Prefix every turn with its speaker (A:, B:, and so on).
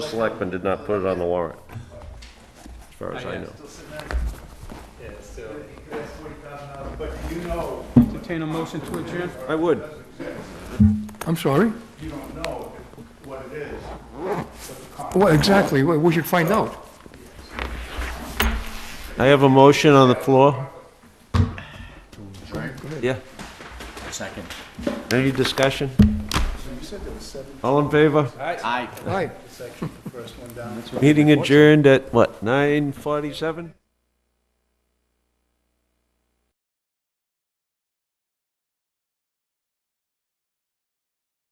A: Selectmen did not put it on the warrant, as far
B: Oh,
A: as I know.
B: Still sitting there,
C: Yeah, so,
B: that's forty thousand dollars, but you know,
D: Entertain a motion to adjourn?
A: I would.
E: I'm sorry?
B: you don't know what it is.
E: Well, exactly, we we should find out.
A: I have a motion on the floor. Yeah.
F: Second.
A: Any discussion? All in favor?
F: Aye.
E: Right.
A: Meeting adjourned at, what, 9:47?